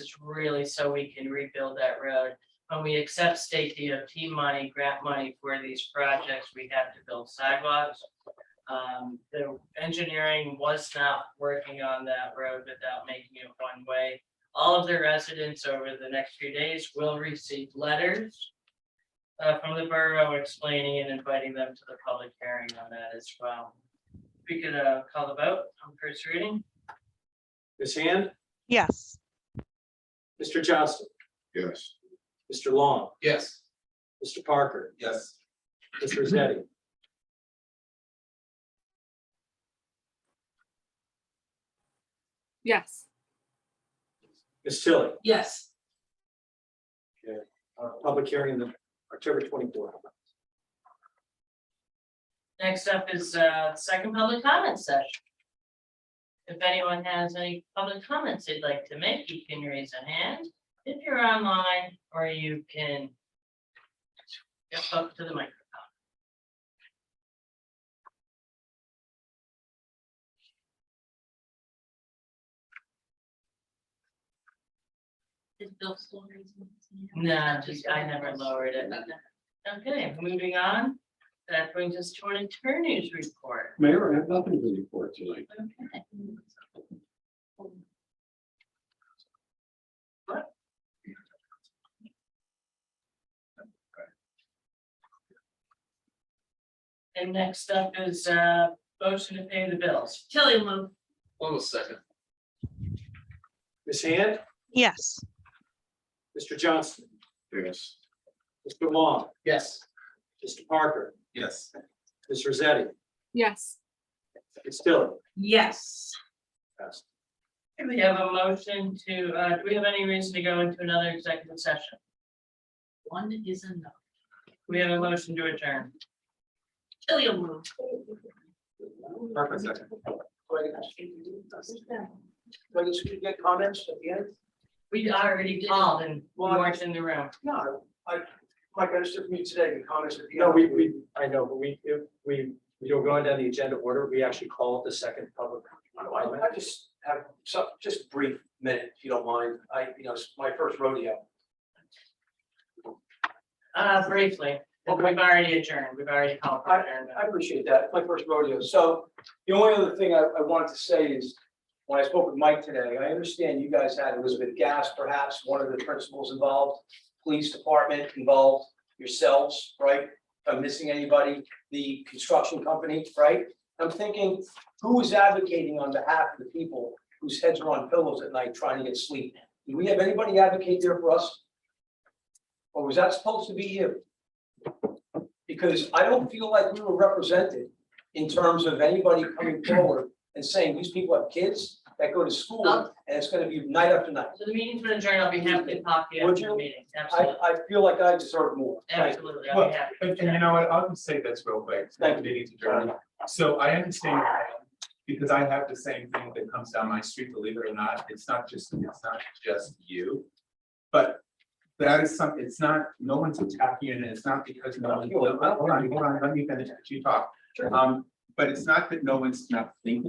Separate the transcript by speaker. Speaker 1: just really so we can rebuild that road. When we accept state DOT money, grant money for these projects, we have to build sidewalks. Um, the engineering was not working on that road without making it one way. All of the residents over the next few days will receive letters uh, from the borough explaining and inviting them to the public hearing on that as well. We could, uh, call the vote on first reading.
Speaker 2: Ms. Hand,
Speaker 3: yes,
Speaker 2: Mr. Johnston,
Speaker 4: yes,
Speaker 2: Mr. Long,
Speaker 5: Yes.
Speaker 2: Mr. Parker,
Speaker 5: Yes.
Speaker 2: Ms. Rosetti.
Speaker 6: yes,
Speaker 2: Ms. Tilly,
Speaker 1: Yes.
Speaker 2: uh, public hearing the October twenty-fourth.
Speaker 1: Next up is uh second public comment session. If anyone has any public comments they'd like to make, you can raise a hand if you're online or you can. Step up to the microphone.
Speaker 7: Is Bill still raising? his hand?
Speaker 1: No, just I never lowered it. Okay, moving on. That brings us to an attorney's report.
Speaker 4: Mayor, I have nothing to report tonight.
Speaker 1: Okay. And next up is uh motion to pay the bills.
Speaker 7: Tilly will move,
Speaker 5: Almost second.
Speaker 2: Ms. Hand,
Speaker 3: yes,
Speaker 2: Mr. Johnston,
Speaker 4: Yes,
Speaker 2: Mr. Long,
Speaker 5: Yes.
Speaker 2: Mr. Parker,
Speaker 5: Yes.
Speaker 2: Ms. Rosetti,
Speaker 6: yes,
Speaker 2: Ms. Tilly.
Speaker 7: yes,
Speaker 2: passed.
Speaker 1: Do we have a motion to, uh, do we have any reason to go into another executive session?
Speaker 7: one is enough.
Speaker 1: We have a motion to adjourn.
Speaker 7: Tilly will move.
Speaker 2: Parker, second.
Speaker 1: We already called and marched in the room.
Speaker 8: No, I, Mike, I just took me today, the comments at the.
Speaker 2: No, we, we, I know, but we, if we, we don't go down the agenda order, we actually call the second public.
Speaker 8: I know, I I just have some, just brief minute, if you don't mind. I, you know, it's my first rodeo.
Speaker 1: Uh, briefly, we've
Speaker 8: Okay.
Speaker 1: already adjourned, we've already called for adjournment.
Speaker 8: I appreciate that. It's my first rodeo. So the only other thing I, I wanted to say is, when I spoke with Mike today, I understand you guys had Elizabeth Gass, perhaps one of the principals involved, police department involved, yourselves, right? If I'm missing anybody, the construction company, right? I'm thinking, who is advocating on behalf of the people whose heads are on pillows at night trying to get sleep? Do we have anybody advocate there for us? Or was that supposed to be you? because I don't feel like we were represented in terms of anybody coming forward and saying, these people have kids that go to school, and it's gonna be night after night.
Speaker 1: So the meeting's been adjourned, I'll be happy to talk to you
Speaker 8: Would
Speaker 1: after the
Speaker 8: you?
Speaker 1: meeting,
Speaker 8: I,
Speaker 1: absolutely,
Speaker 8: I feel like I deserve more. Thank you.
Speaker 1: absolutely, I'll be happy.
Speaker 5: And, and you know what, I'll just say this real quick.
Speaker 8: Thank
Speaker 5: Meeting's adjourned. So I understand your pain, because I have the same thing that comes down my street, believe it or not. It's not just, it's not just you. But that is some, it's not, no one's attacking you and it's not because no one, hold on, hold on, let me finish, you talk.
Speaker 8: Sure.
Speaker 5: Um, but it's not that no one's not thinking